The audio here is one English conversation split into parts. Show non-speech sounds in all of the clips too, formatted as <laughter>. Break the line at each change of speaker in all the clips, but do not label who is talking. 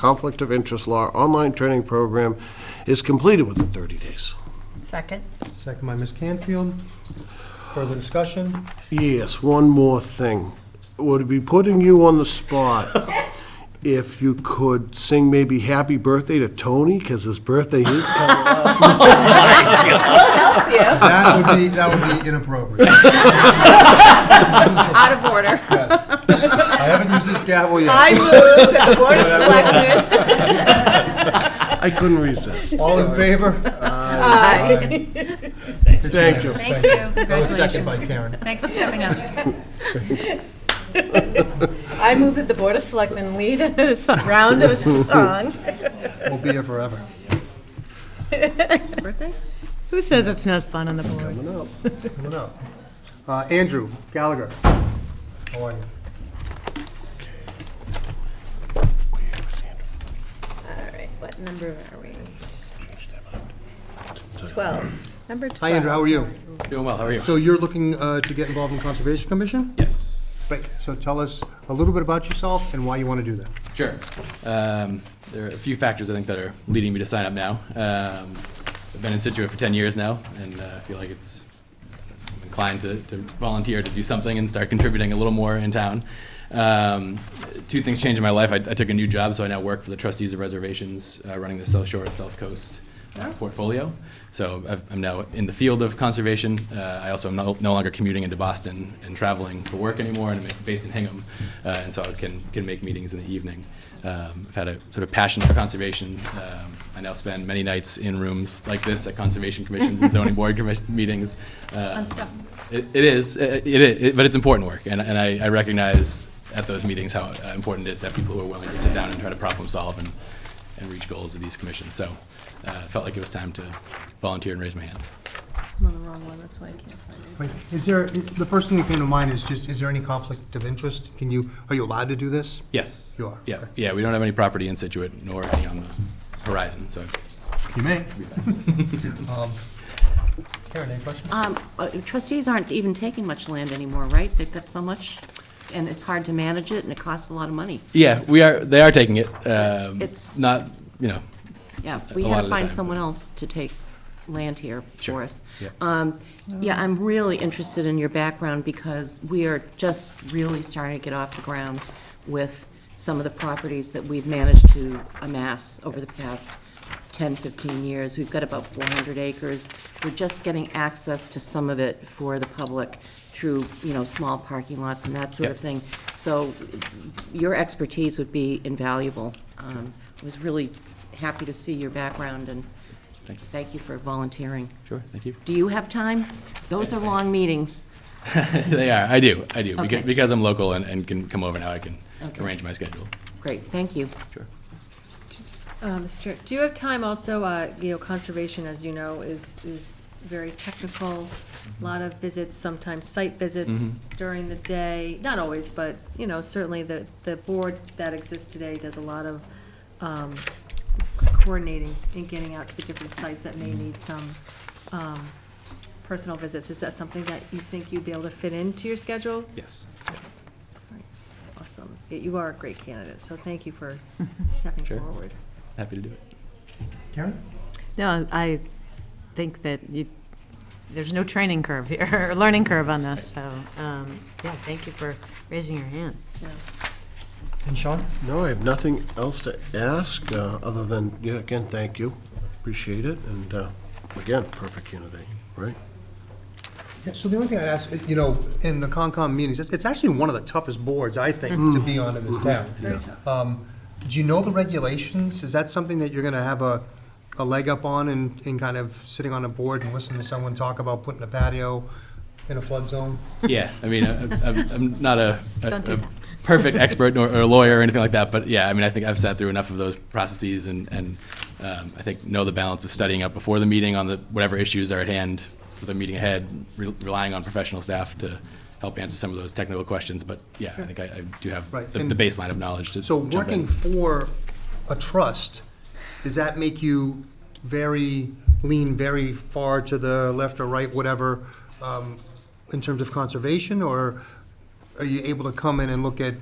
Conflict of Interest Law online training program is completed within 30 days.
Second.
Second by Ms. Canfield. Further discussion?
Yes, one more thing. Would it be putting you on the <laughs> spot if you could sing maybe Happy Birthday to Tony, because his birthday is coming?
That would be, that would be inappropriate.
Out
<laughs>
of order.
I haven't used this gavel
I
yet.
move that the
<laughs>
Board of Selectmen.
I couldn't resist.
All in favor?
Aye.
Thank you.
Thank you.
That was second
Congratulations.
by Karen.
Thanks for stepping up.
I move that the Board of Selectmen lead a <laughs> s- round of song.
We'll be here forever.
<laughs> Birthday?
Who says it's not fun on the board?
I don't know. Uh, Andrew Gallagher, how are you?
All right, what number are we? Twelve, number twelve.
Hi, Andrew, how are you?
Doing well, how are you?
So you're looking uh, to get involved in Conservation Commission?
Yes.
Great. So tell us a little bit about yourself and why you want to do that.
Sure. Um, There are a few factors, I think, that are leading me to sign up now. Um, I've been in Situate for 10 years now, and uh, I feel like it's I'm inclined to, to volunteer to do something and start contributing a little more in town. Um, two things changed in my life. I, I took a new job, so I now work for the trustees of reservations, uh, running the South Shore and South Coast uh, portfolio. So I've, I'm now in the field of conservation. Uh, I also am no, no longer commuting into Boston and traveling for work anymore, and I'm based in Hingham, uh, and so I can can make meetings in the evening. Um, I've had a sort of passion for conservation. Um, I now spend many nights in rooms like this at conservation commissions and zoning board commi- <laughs> meetings. um,
Fun stuff.
it, it is, uh, it, it is, it- but it's important work, and, and I, I recognize at those meetings how uh, important it is to have people who are willing to sit down and try to problem solve and, and reach goals of these commissions. So uh, I felt like it was time to volunteer and raise my hand.
I'm on the wrong one, that's why I can't find it.
Wait, Is there, the first thing that came to mind is just, is there any conflict of interest? Can you, are you allowed to do this?
Yes.
You are,
Yeah,
okay.
yeah. We don't have any property in Situate nor any on the horizon, so
You may. <laughs> Um, Karen, any questions?
Um, uh, Trustees aren't even taking much land anymore, right? They've got so much, and it's hard to manage it, and it costs a lot of money.
yeah, we are. They are taking it. Um,
It's-
not, you know,
Yeah, we
lot
had
of
to
the time.
find someone else to take land here
Sure,
for us.
yeah.
Um, Yeah, I'm really interested in your background, because we are just really starting to get off the ground with some of the properties that we've managed to amass over the past 10, 15 years. We've got about 400 acres. We're just getting access to some of it for the public through, you know, small parking lots and that sort of
Yep.
thing. So your expertise would be invaluable. Um, I was really happy to see your background, and
Thank you.
thank you for volunteering.
sure. <laughs> Thank you.
Do you have time? Those are long meetings.
they are. I do. I do. Beca-
Okay.
Because, I'm local and, and can come over now. I can
Okay.
arrange my schedule.
Great, thank you.
Sure.
Uh, Mr. Chair, do you have time also, uh, you know, conservation, as you know, is, is very technical, a lot of visits, sometimes site visits during the day, not always, but, you know, certainly the, the board that exists today does a lot of um, coordinating and getting out to the different sites that may need some um, personal visits. Is that something that you think you'd be able to fit into your schedule?
Yes.
Awesome. Yeah, You are a great candidate, so thank you for stepping
Sure.
forward.
Happy to do it.
Karen?
No, I think that you, there's no training curve here, <laughs> or learning curve on this, so, um, yeah, thank you for raising your hand.
Yeah.
And Sean?
No, I have nothing else to ask, uh, other than, yeah, again, thank you. Appreciate it, and uh, again, perfect candidate, right?
Yeah, so the only thing I'd ask, you know, in the Concom meetings, it- it's actually one of the toughest boards, I think, to be on in this town. Um, Do you know the regulations? Is that something that you're gonna have a, a leg up on and, and kind of sitting on a board and listening to someone talk about putting a patio in a flood zone?
Yeah, <laughs> I mean, I- I'm I'm not a, a-
Don't do
a
that. <laughs>
perfect expert nor or a lawyer or anything like that, but yeah, I mean, I think I've sat through enough of those processes and, and um, I think know the balance of studying up before the meeting on the, whatever issues are at hand for the meeting ahead, re- relying on professional staff to help answer some of those technical questions, but yeah, I think I I do have
Right,
the
and-
the baseline of knowledge to
So
jump in.
working for a trust, does that make you very, lean very far to the left or right, whatever, um, in terms of conservation, or are you able to come in and look at, you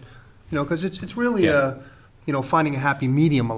know, because it's, it's really
Yeah.
a, you know, finding a happy medium